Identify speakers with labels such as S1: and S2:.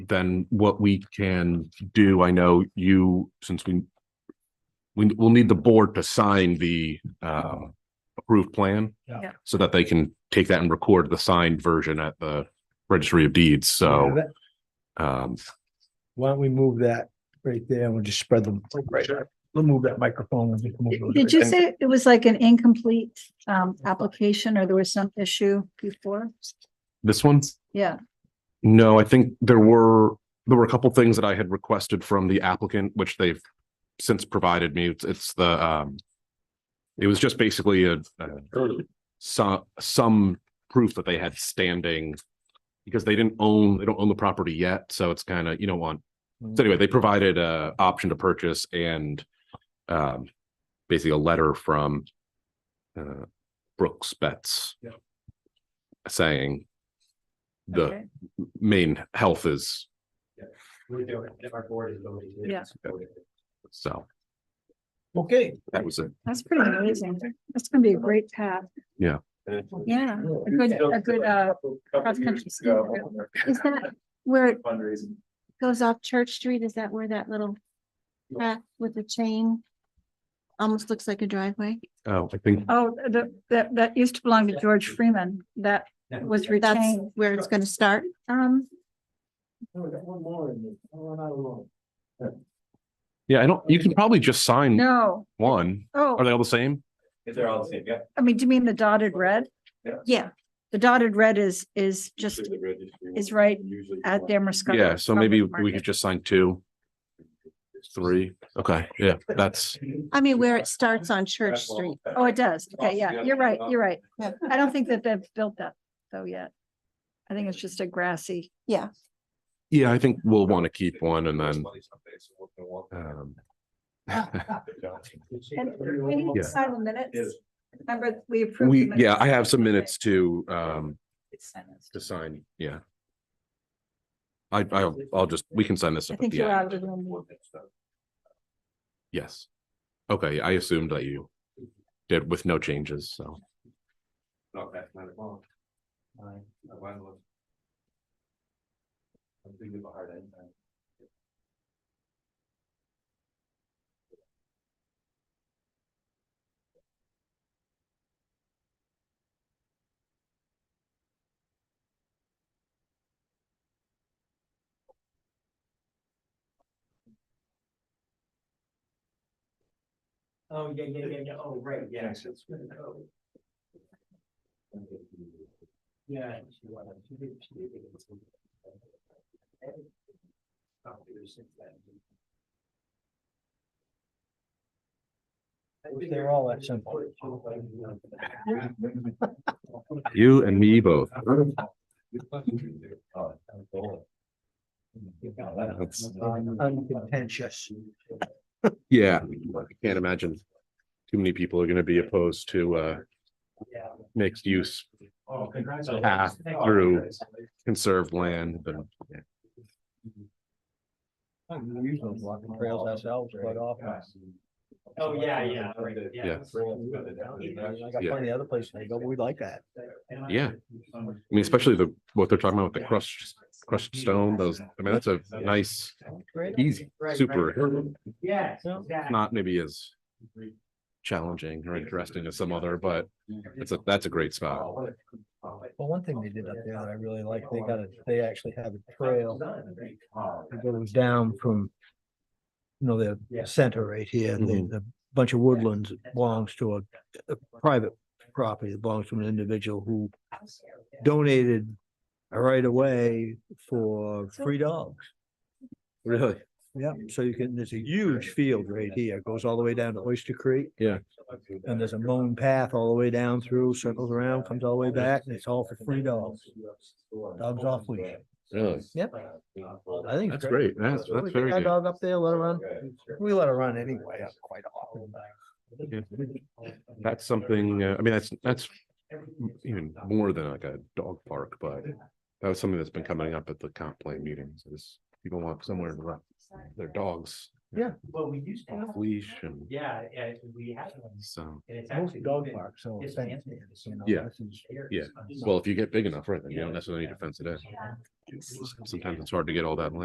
S1: then what we can do, I know you, since we we will need the board to sign the uh approved plan.
S2: Yeah.
S3: Yeah.
S1: So that they can take that and record the signed version at the registry of deeds,
S2: Yeah,
S1: so
S2: that-
S1: um
S2: Why don't we move that right there and we'll just spread them. Right. We'll move that microphone and just move those
S3: Did
S2: right
S3: you
S2: there.
S3: say it was like an incomplete um application or there was some issue before?
S1: this one's
S3: Yeah,
S1: No, I think there were, there were a couple things that I had requested from the applicant, which they've since provided me. It's, it's the, um, it was just basically a, some, some proof that they had standing because they didn't own, they don't own the property yet. So it's kind of, you don't want, so anyway, they provided a option to purchase and, um, basically a letter from, uh, Brooks Betts
S2: Yeah.
S1: saying the
S3: okay,
S1: main health is,
S4: We're doing, it. if our board is voting.
S3: Yeah.
S1: so
S2: Okay.
S1: that was it.
S3: that's pretty amazing. That's gonna be a great path. Yeah, a good, a good uh, cross-country ski. Is that where it
S4: Fundraising.
S5: goes off Church Street, is that where that little path with the chain? Almost looks like a driveway.
S1: Oh, I think,
S3: oh, the, that, that used to belong to George Freeman. That was
S5: That's
S3: retained.
S5: where it's gonna start. Um,
S2: No, we got one more in there. Oh, not alone.
S1: yeah, I don't, you can probably just sign
S3: No,
S1: one. Hmm. Are
S3: oh,
S1: they all the same?
S4: If they're all the same, yeah.
S3: I mean, do you mean the dotted red?
S5: yeah,
S3: The dotted red is, is just
S4: Usually the registry
S3: is right
S4: usually
S3: at their Muscatine.
S1: Yeah, so maybe
S3: Public
S1: we
S3: Market.
S1: could just sign two, three. Okay, yeah, that's,
S5: I mean, where it starts on Church Street.
S3: Oh, it does. Okay,
S4: Off
S3: yeah,
S4: the
S3: you're
S4: other
S3: right,
S4: side.
S3: you're right.
S5: Yeah.
S3: I don't think that they've built that though yet. I think it's just a grassy.
S5: Yeah,
S1: yeah, I think we'll want to keep one and then, um,
S3: And we need
S1: Yeah.
S3: to sign the minutes. Remember, we approved. the
S1: we, yeah,
S3: minutes.
S1: I have some minutes to, um, to sign, yeah. I, I'll, I'll just, we can sign this
S3: I
S1: up at
S3: think
S1: the
S3: you're
S1: end.
S3: out of the room.
S1: Yes. Okay, I assumed that you did with no changes, so.
S4: Not that kind of bond. Fine, I went with- I'm thinking of a hard end time.
S2: Oh, yeah, yeah, yeah, yeah. Oh, right, yeah. Oh. Yeah. They're all that simple.
S1: You and me both.
S2: Uncontentious.
S1: Yeah, I can't imagine too many people are gonna be opposed to uh mixed use
S4: Oh, congratulations.
S1: path through conserved land and
S2: We usually walk the trails ourselves quite often.
S4: Oh, yeah, yeah, right,
S1: Yeah.
S2: I got
S1: Yeah.
S2: plenty of other places to go, but we like that.
S1: Yeah. I mean, especially the, what they're talking about with the crushed, crushed stone, those, I mean, that's a nice, easy, super.
S4: Yes.
S2: Yeah.
S1: Not maybe as challenging or interesting as some other, but it's a, that's a great spot.
S2: Well, one thing they did up there that I really like, they got a, they actually have a trail that goes down from. You know, the
S4: Yeah.
S2: center right here, the,
S1: Mhm.
S2: the bunch of woodlands that belongs to a, a private property that belongs to an individual who donated. A right of way for free dogs.
S1: Really?
S2: Yeah, so you can, there's a huge field right here, It goes all the way down to Oyster Creek.
S1: Yeah.
S2: And there's a mown path all the way down through, circles around, comes all the way back, and it's all for free dogs. Dogs off leash.
S1: Really?
S2: Yep. I think. it's
S1: That's great. That's,
S2: We
S1: that's
S2: take
S1: very
S2: Our
S1: good.
S2: dog up there, let her run. We let her run anyway, uh, quite often.
S1: That's something, uh, I mean, that's, that's even more than like a dog park, but that was something that's been coming up at the comp plan meetings is people want somewhere to run their dogs
S4: Well, we used to.
S1: off leash and
S4: Yeah, yeah, we had one,
S1: so,
S4: and it's actually.
S2: Most dog parks, so.
S4: it's
S2: fence
S4: fancy,
S2: is, you know,
S1: Yeah.
S2: this is-
S1: yeah. Well, if you get big enough, right, then you don't necessarily need to fence it in.
S3: Yeah.
S1: Sometimes it's hard to get all that land.